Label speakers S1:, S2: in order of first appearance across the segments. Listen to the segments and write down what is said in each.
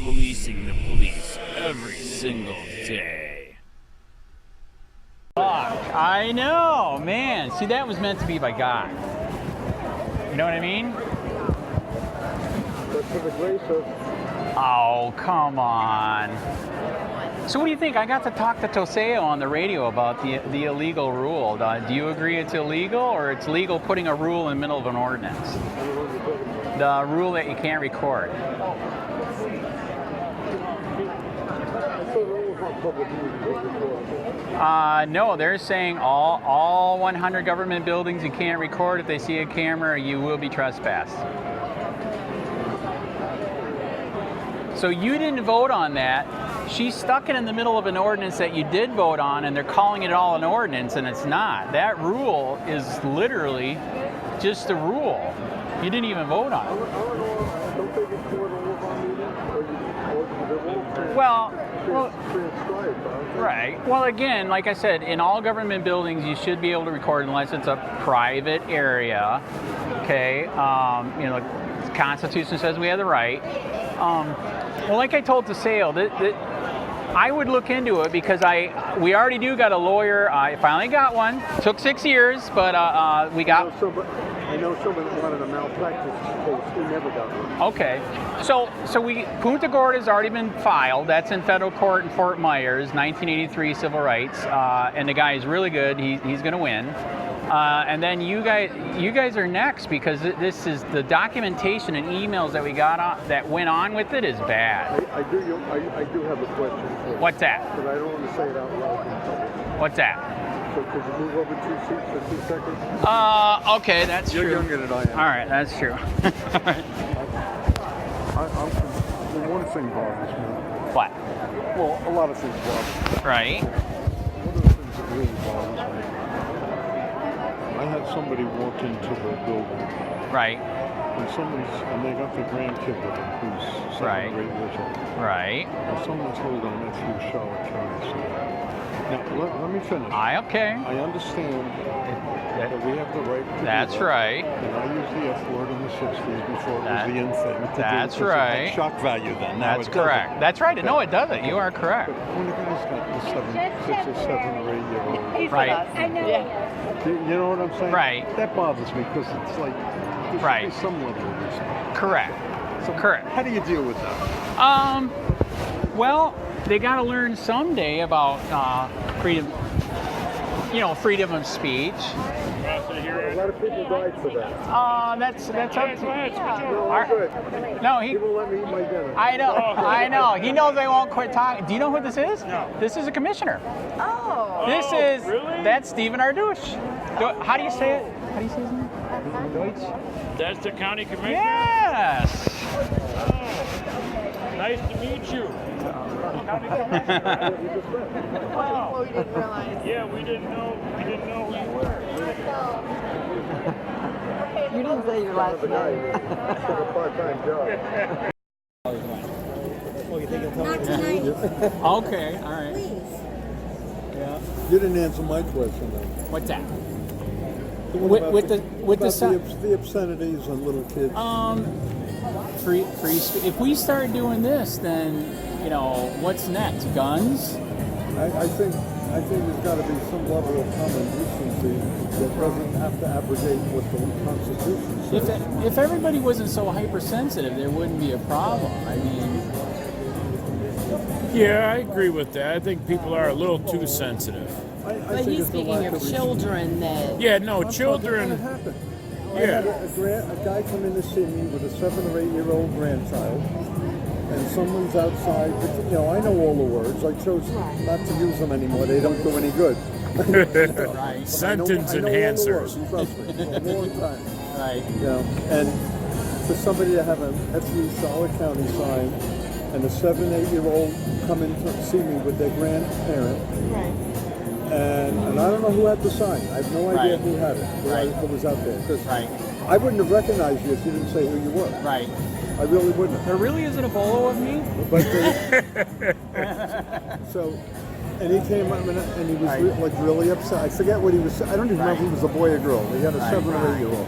S1: chasing the police every single day.
S2: Fuck, I know, man. See, that was meant to be by God. You know what I mean?
S3: But for the grace of
S2: Oh, come on. So, what do you think? I got to talk to Toseo on the radio about the, the illegal rule. Uh, do you agree it's illegal or it's legal putting a rule in the middle of an ordinance?
S3: everyone you're talking about.
S2: The rule that you can't record.
S3: I thought all of our public meetings were recorded.
S2: Uh, no, they're saying all, all 100 government buildings you can't record. If they see a camera, you will be trespassed. So you didn't vote on that. She stuck it in the middle of an ordinance that you did vote on, and they're calling it all an ordinance, and it's not. That rule is literally just a rule. You didn't even vote on it.
S3: All in all, I don't think it's more than all of our meetings, or you, or they won't trans-
S2: Well, well
S3: trans- transcribe, I don't think.
S2: Right. Well, again, like I said, in all government buildings, you should be able to record unless it's a private area. Okay. Um, you know, the Constitution says we have the right. Um, well, like I told DeSale, that, that I would look into it because I we already do got a lawyer. I finally got one. Took six years, but uh, uh, we
S3: I
S2: got
S3: know somebody, I know someone that wanted a malpractice case, he never got one.
S2: Okay, so so we Punta Gorda has already been filed. That's in federal court in Fort Myers, 1983 civil rights, uh, and the guy is really good. He, he's going to win. Uh, and then you guys you guys are next because th- this is the documentation and emails that we got on, that went on with it is bad.
S3: I, I do, you- I, I do have a question for you.
S2: What's that?
S3: But I don't want to say it out loud in public.
S2: What's that?
S3: So could you move over two seats for two seconds?
S2: Uh, okay, that's
S3: You're
S2: true.
S3: younger than I am.
S2: All right, that's true.
S3: I, I'm, well, one thing bothers me.
S2: what?
S3: Well, a lot of things bother me.
S2: Right?
S3: One of the things that really bothers me. I had somebody walk into the building,
S2: Right?
S3: and someone's, and they got their grandkid with them, who's
S2: Right.
S3: seven, or eight years old.
S2: Right?
S3: And someone told them that you shall carry Now, let, let me finish.
S2: I okay.
S3: I understand that we have the right to do
S2: That's
S3: that.
S2: right.
S3: And I used the F word in the 60s before it
S2: That-
S3: was the in thing. to do,
S2: that's
S3: because it had
S2: right.
S3: Shock value then. Now
S2: That's
S3: it doesn't.
S2: correct. That's right. No, it doesn't. You are correct.
S3: But when a guy's got the seven, six or seven or eight year old,
S4: He's
S2: Right.
S4: with us.
S5: I know.
S3: you, you know what I'm saying?
S2: Right.
S3: That bothers me because it's like there should be
S2: Right.
S3: some level of respect.
S2: Correct.
S3: So
S2: Correct.
S3: How do you deal with that?
S2: Um, well, they got to learn someday about uh, freedom, you know, freedom of speech.
S3: A lot of people died for that.
S2: Uh, that's that's up to,
S3: No,
S2: I'm good. no he.
S3: He won't let me eat my dinner.
S2: I know, I know. He knows I won't quit talking. Do you know who this is? Oh. No. This is a commissioner.
S5: Oh.
S2: This is that's Stephen Ardouche. Do- how do you say it? How do you say his name? Deutsch.
S1: That's the county commissioner.
S2: Yes.
S1: Nice to meet you.
S5: Well, we didn't realize.
S1: Yeah, we didn't know. We didn't know who you were.
S4: You didn't say your last
S3: The guy
S4: name.
S3: who got a part-time job.
S6: Not tonight,
S2: Okay. All right.
S6: please.
S3: You didn't answer my question though.
S2: What's that?
S3: The one
S2: With-
S3: about
S2: with the- with the
S3: about
S2: son-
S3: obs- the obscenities on little kids.
S2: Um, free, free spe- If we start doing this, then you know what's next? Guns?
S3: I, I think I think there's got to be some level of common decency that doesn't have to abrogate what the Constitution
S2: If
S3: says.
S2: if everybody wasn't so hypersensitive, there wouldn't be a problem. I mean,
S1: Yeah, I agree with that. I think people are a little too sensitive.
S3: I, I
S4: But
S3: think
S4: he's
S3: it's a lack
S4: speaking of
S3: respect.
S4: children that.
S1: Yeah, no,
S3: I'm fucking-
S1: children.
S3: and It happened. I
S1: Yeah.
S3: had a, a, grand, a guy come in to see me with a seven or eight year old grandchild, and someone's outside. But, you know, I know all the words. I chose not to use them anymore. They don't do any good.
S2: right,
S3: I know-
S1: Sentence
S3: I know all the words,
S1: enhancers.
S3: Trust me, a long time.
S2: right.
S3: You know, and for somebody to have a FU Charlotte County sign and a seven, eight year old come in to see me with their grandparent,
S5: Right.
S3: and, and I don't know who had the sign. I have no idea
S2: Right.
S3: who had it, who
S2: Right.
S3: who was out there. 'cause
S2: Right.
S3: I wouldn't have recognized you if you didn't say who you were.
S2: Right.
S3: I really wouldn't.
S2: There really isn't a bolo of me.
S3: But the- so, and he came up and, and he was
S2: Right.
S3: re- like really upset. I forget what he was. I don't even
S2: Right.
S3: remember if he was a boy or girl. He had a
S2: Right.
S3: seven or eight year old.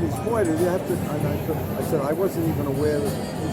S3: He's boy. Did you have to? And I, said- I said I wasn't even aware that.